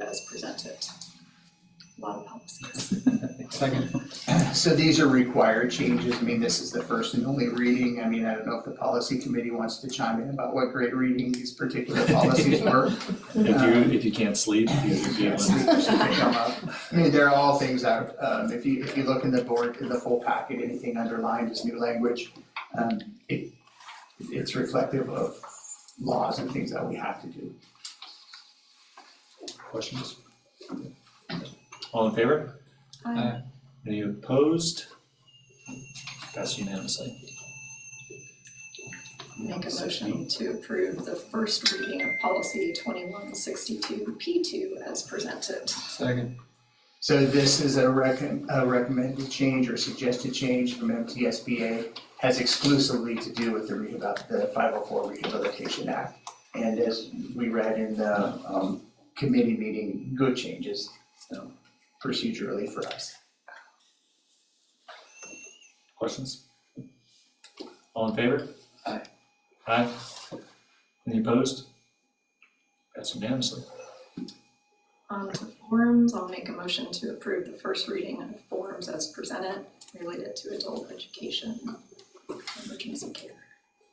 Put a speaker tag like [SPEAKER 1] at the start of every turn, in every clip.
[SPEAKER 1] as presented. A lot of policies.
[SPEAKER 2] Second.
[SPEAKER 3] So these are required changes, I mean, this is the first and only reading, I mean, I don't know if the policy committee wants to chime in about what great reading these particular policies were.
[SPEAKER 2] If
[SPEAKER 4] Um,
[SPEAKER 2] you, if you can't sleep, these are good
[SPEAKER 3] Yes,
[SPEAKER 2] ones.
[SPEAKER 3] they should come up. I mean, they're all things that, um, if you, if you look in the board, in the full packet, anything underlined is new language. Um, it, it's reflective of laws and things that we have to do.
[SPEAKER 2] Questions? All in favor? Any opposed? Passed unanimously.
[SPEAKER 1] Make a motion to approve the first reading of policy twenty-one sixty-two P two as presented.
[SPEAKER 4] Second.
[SPEAKER 3] So this is a recom a recommended change or suggested change from MTSBA, has exclusively to do with the rehab, the five oh four Rehabilitation Act. And as we read in the, um, committee meeting, good changes, um, procedurally for us.
[SPEAKER 2] Questions? All in favor?
[SPEAKER 4] Aye.
[SPEAKER 2] Aye. Any opposed? Passed unanimously.
[SPEAKER 1] On to forms, I'll make a motion to approve the first reading of forms as presented related to adult education, emergency care,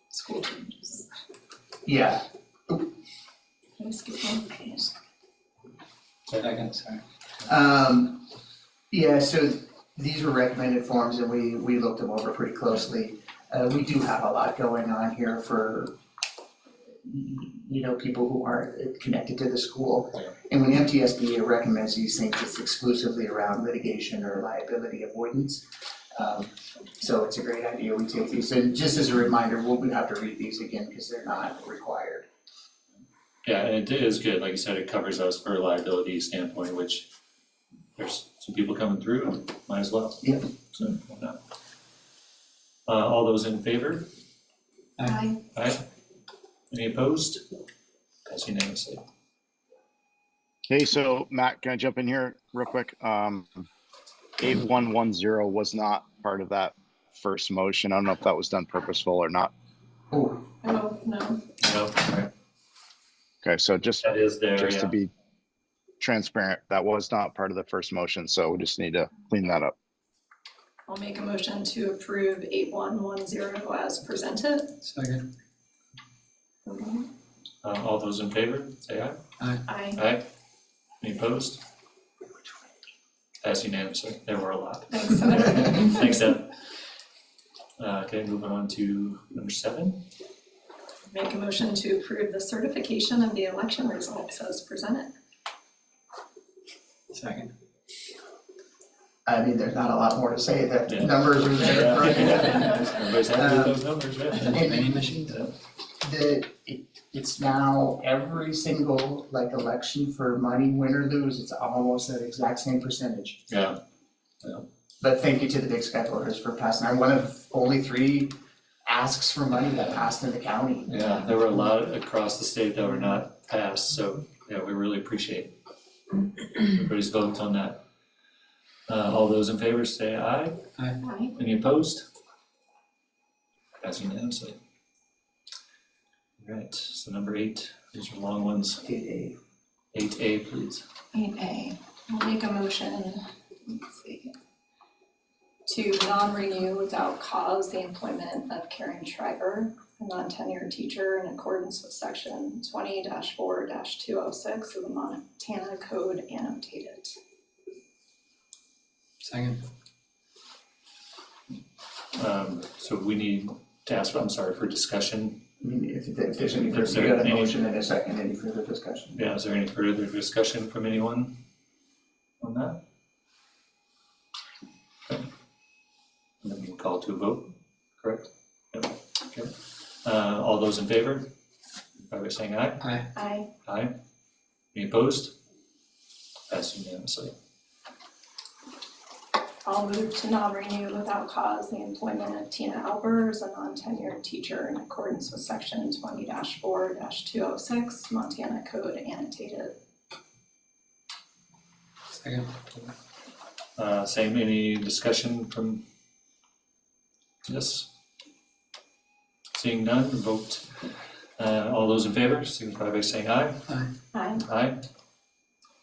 [SPEAKER 1] school changes.
[SPEAKER 3] Yeah,
[SPEAKER 1] Can I skip one?
[SPEAKER 4] Second, sorry.
[SPEAKER 3] Um, yeah, so these were recommended forms and we, we looked them over pretty closely. Uh, we do have a lot going on here for, you know, people who aren't connected to the school.
[SPEAKER 2] Yeah.
[SPEAKER 3] And when MTSBA recommends these things, it's exclusively around litigation or liability avoidance. Um, so it's a great idea, we take these, and just as a reminder, we'll have to read these again because they're not required.
[SPEAKER 2] Yeah, and it is good, like you said, it covers us for a liability standpoint, which there's some people coming through, might as well.
[SPEAKER 3] Yep.
[SPEAKER 2] So, why not? Uh, all those in favor?
[SPEAKER 1] Aye.
[SPEAKER 2] Aye. Any opposed? Pass unanimously.
[SPEAKER 5] Hey, so Matt, can I jump in here real quick? Um, eight one one zero was not part of that first motion. I don't know if that was done purposeful or not.
[SPEAKER 3] Oh,
[SPEAKER 1] Oh, no,
[SPEAKER 2] No, alright,
[SPEAKER 5] Okay, so just,
[SPEAKER 2] that is there,
[SPEAKER 5] just to
[SPEAKER 2] yeah.
[SPEAKER 5] be transparent, that was not part of the first motion, so we just need to clean that up.
[SPEAKER 1] I'll make a motion to approve eight one one zero as presented.
[SPEAKER 4] Second.
[SPEAKER 2] Uh, all those in favor, say aye.
[SPEAKER 1] Aye.
[SPEAKER 2] Aye. Any opposed? Pass unanimously, there were a lot.
[SPEAKER 1] Thanks, Evan.
[SPEAKER 2] Thanks, Deb. Uh, okay, moving on to number seven.
[SPEAKER 1] Make a motion to approve the certification of the election results as presented.
[SPEAKER 4] Second.
[SPEAKER 3] I mean, there's not a lot more to say, the
[SPEAKER 2] Yeah.
[SPEAKER 3] numbers are there. for you.
[SPEAKER 2] Everybody's happy with those numbers, yeah.
[SPEAKER 4] Many machines.
[SPEAKER 3] the, it, it's now every single like election for money, win or lose, it's almost that exact same percentage.
[SPEAKER 2] Yeah,
[SPEAKER 3] But thank you to the Big Sky voters for passing, I'm one of only three asks for money that passed in the county.
[SPEAKER 2] yeah, there were a lot across the state that were not passed, so, yeah, we really appreciate everybody's vote on that. Uh, all those in favor say aye,
[SPEAKER 1] Aye.
[SPEAKER 2] any opposed? Passing unanimously. Alright, so number eight, these are long ones,
[SPEAKER 3] Did a,
[SPEAKER 2] eight A please.
[SPEAKER 1] Eight A, I'll make a motion, let's see, to non-renew without cause the employment of Karen Schreiber, a non-tenured teacher in accordance with section twenty four two oh six of the Montana Code annotated.
[SPEAKER 4] Second.
[SPEAKER 2] Um, so we need to ask, I'm sorry, for discussion
[SPEAKER 3] I mean, if, if there's any
[SPEAKER 2] If
[SPEAKER 3] further, you
[SPEAKER 2] there
[SPEAKER 3] got a
[SPEAKER 2] any-
[SPEAKER 3] motion and a second, any further discussion?
[SPEAKER 2] Yeah, is there any further discussion from anyone on that? Okay. And then we can call to a vote, correct? Yep, okay. Uh, all those in favor, by way of saying aye?
[SPEAKER 4] Aye.
[SPEAKER 1] Aye.
[SPEAKER 2] Aye. Any opposed? Passed unanimously.
[SPEAKER 1] I'll move to non-renew without cause the employment of Tina Alber as a non-tenured teacher in accordance with section twenty four two oh six Montana Code annotated.
[SPEAKER 4] Second.
[SPEAKER 2] Uh, same, any discussion from this? Seeing none, vote. Uh, all those in favor, signify by saying aye?
[SPEAKER 4] Aye.
[SPEAKER 1] Aye.
[SPEAKER 2] Aye.